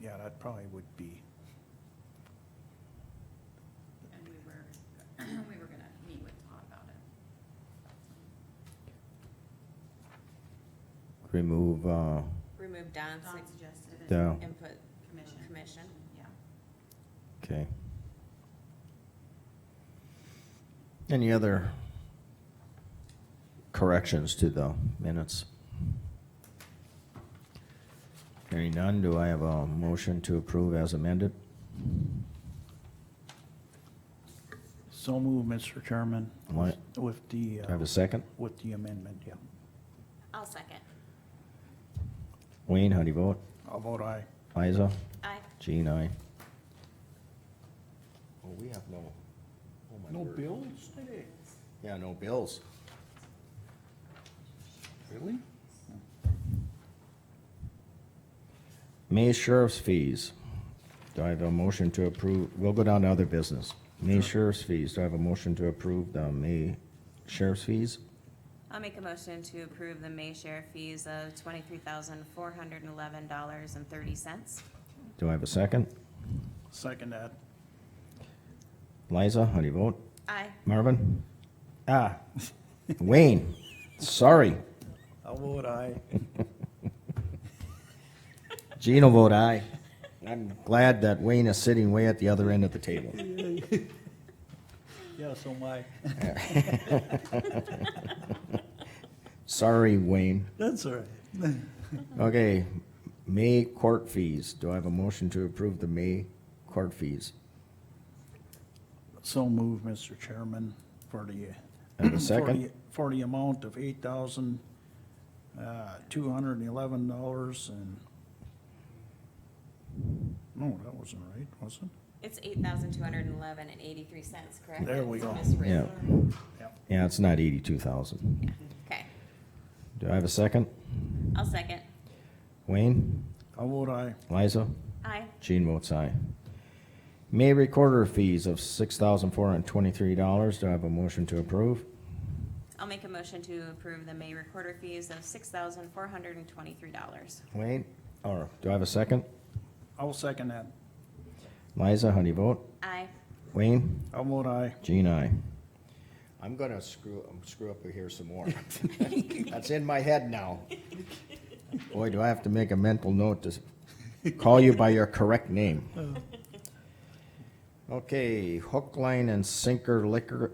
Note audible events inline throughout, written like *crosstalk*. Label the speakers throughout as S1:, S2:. S1: yeah, that probably would be,
S2: And we were, *clears throat* we were gonna meet with Todd about it.
S3: Remove, uh,
S4: Remove Don's
S2: Don suggested it.
S3: Don.
S4: input
S2: Commission.
S4: commission.
S2: Yeah.
S3: okay. Any other corrections to the minutes? Hearing none, do I have a motion to approve as amended?
S1: so move, Mr. Chairman.
S3: What?
S1: With the,
S3: Do
S1: uh,
S3: I have a second?
S1: with the amendment, yeah.
S4: I'll second.
S3: Wayne, how do you vote?
S1: I'll vote aye.
S3: Liza?
S4: Aye.
S3: Gene, aye. Well, we have no, oh my word.
S1: bills today?
S3: Yeah, no bills.
S1: Really?
S3: May sheriff's fees. Do I have a motion to approve? We'll go down to other business. May sheriff's fees. Do I have a motion to approve the May sheriff's fees?
S4: I'll make a motion to approve the May share fees of twenty-three thousand, four hundred and eleven dollars and thirty cents.
S3: Do I have a second?
S1: Second that.
S3: Liza, how do you vote?
S4: Aye.
S3: Marvin? Ah, Wayne, sorry.
S1: I'll vote aye.
S3: Gene will vote aye. I'm glad that Wayne is sitting way at the other end of the table.
S1: Yeah, so my,
S3: Sorry, Wayne.
S1: that's all right.
S3: Okay, May court fees. Do I have a motion to approve the May court fees?
S1: So move, Mr. Chairman, for the.
S3: And a
S1: *clears throat* for
S3: second?
S1: the- For the amount of eight thousand, uh, two hundred and eleven dollars and. No, that wasn't right, was it?
S4: It's eight thousand, two hundred and eleven and eighty-three cents, correct?
S1: There we
S4: It's
S1: go.
S3: Yeah.
S4: miswritten.
S1: Yep.
S3: Yeah, it's not eighty-two thousand.
S4: Okay,
S3: Do I have a second?
S4: I'll second.
S3: Wayne?
S1: I'll vote aye.
S3: Liza?
S4: Aye.
S3: Gene votes aye. May recorder fees of six thousand four hundred and twenty-three dollars. Do I have a motion to approve?
S4: I'll make a motion to approve the May recorder fees of six thousand, four hundred and twenty-three dollars.
S3: Wayne? Or, do I have a second?
S1: I'll second that.
S3: Liza, how do you vote?
S4: Aye.
S3: Wayne?
S1: I'll vote aye.
S3: Gene, aye. I'm gonna screw, um, screw up here some more. *laughs* That's in my head now. Boy, do I have to make a mental note to s- call you by your correct name. Oh. Okay, hook, line, and sinker liquor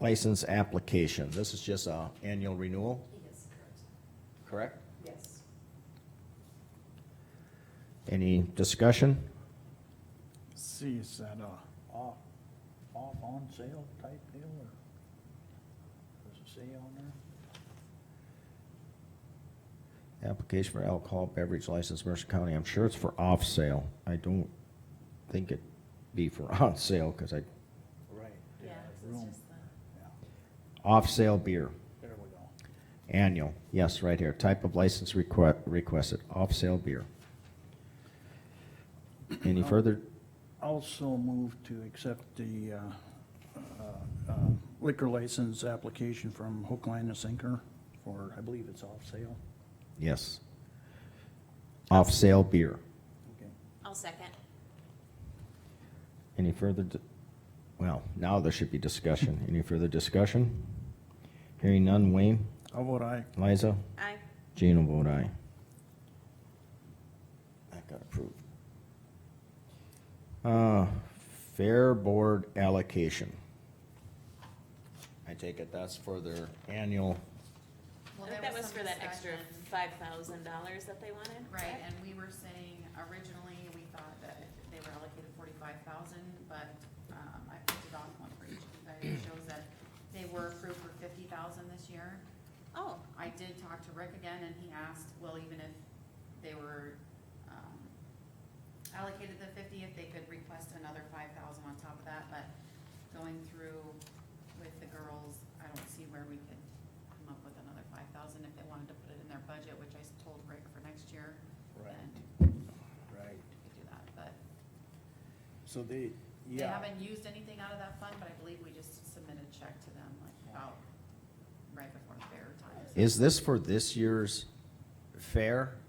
S3: license application. This is just a annual renewal,
S2: He is correct.
S3: correct?
S2: Yes.
S3: Any discussion?
S1: See, is that a off, off on sale type deal or? Does it say on there?
S3: Application for alcohol beverage license, Mercer County. I'm sure it's for off sale. I don't think it'd be for *laughs* on sale, because I,
S1: Right.
S2: Yeah,
S1: Room,
S2: the.
S1: yeah,
S3: off sale beer.
S1: there we go.
S3: Annual, yes, right here, type of license requ- requested, off-sale beer. Any further,
S1: Also move to accept the uh, uh, uh, liquor license application from Hook, Line, and Sinker for, I believe it's off sale.
S3: yes. Off-sale beer.
S1: Okay.
S4: I'll second.
S3: Any further, di- well, now there should be discussion, any further discussion? Hearing none, Wayne,
S1: I'll vote aye.
S3: Liza,
S4: Aye.
S3: Gene will vote aye. That got approved. Uh, Fair Board allocation. I take it that's for their annual
S2: Well,
S4: I think
S2: there
S4: that was
S2: some
S4: for that extra
S2: discussion.
S4: five thousand dollars that they wanted.
S2: Right, and we were saying originally, we thought that they were allocated forty-five thousand, but, um, I put it on one for each of you guys. It shows that they were approved for fifty thousand this year.
S4: Oh,
S2: I did talk to Rick again and he asked, well, even if they were, um, allocated the fifty, if they could request another five thousand on top of that, but going through with the girls, I don't see where we could come up with another five thousand if they wanted to put it in their budget, which I told Rick for next year, then
S1: right.
S2: we could do that, but
S1: So they,
S2: they haven't used anything out of that fund, but I believe we just submitted a check to them like about right before fair time. so-
S3: Is this for this year's fair?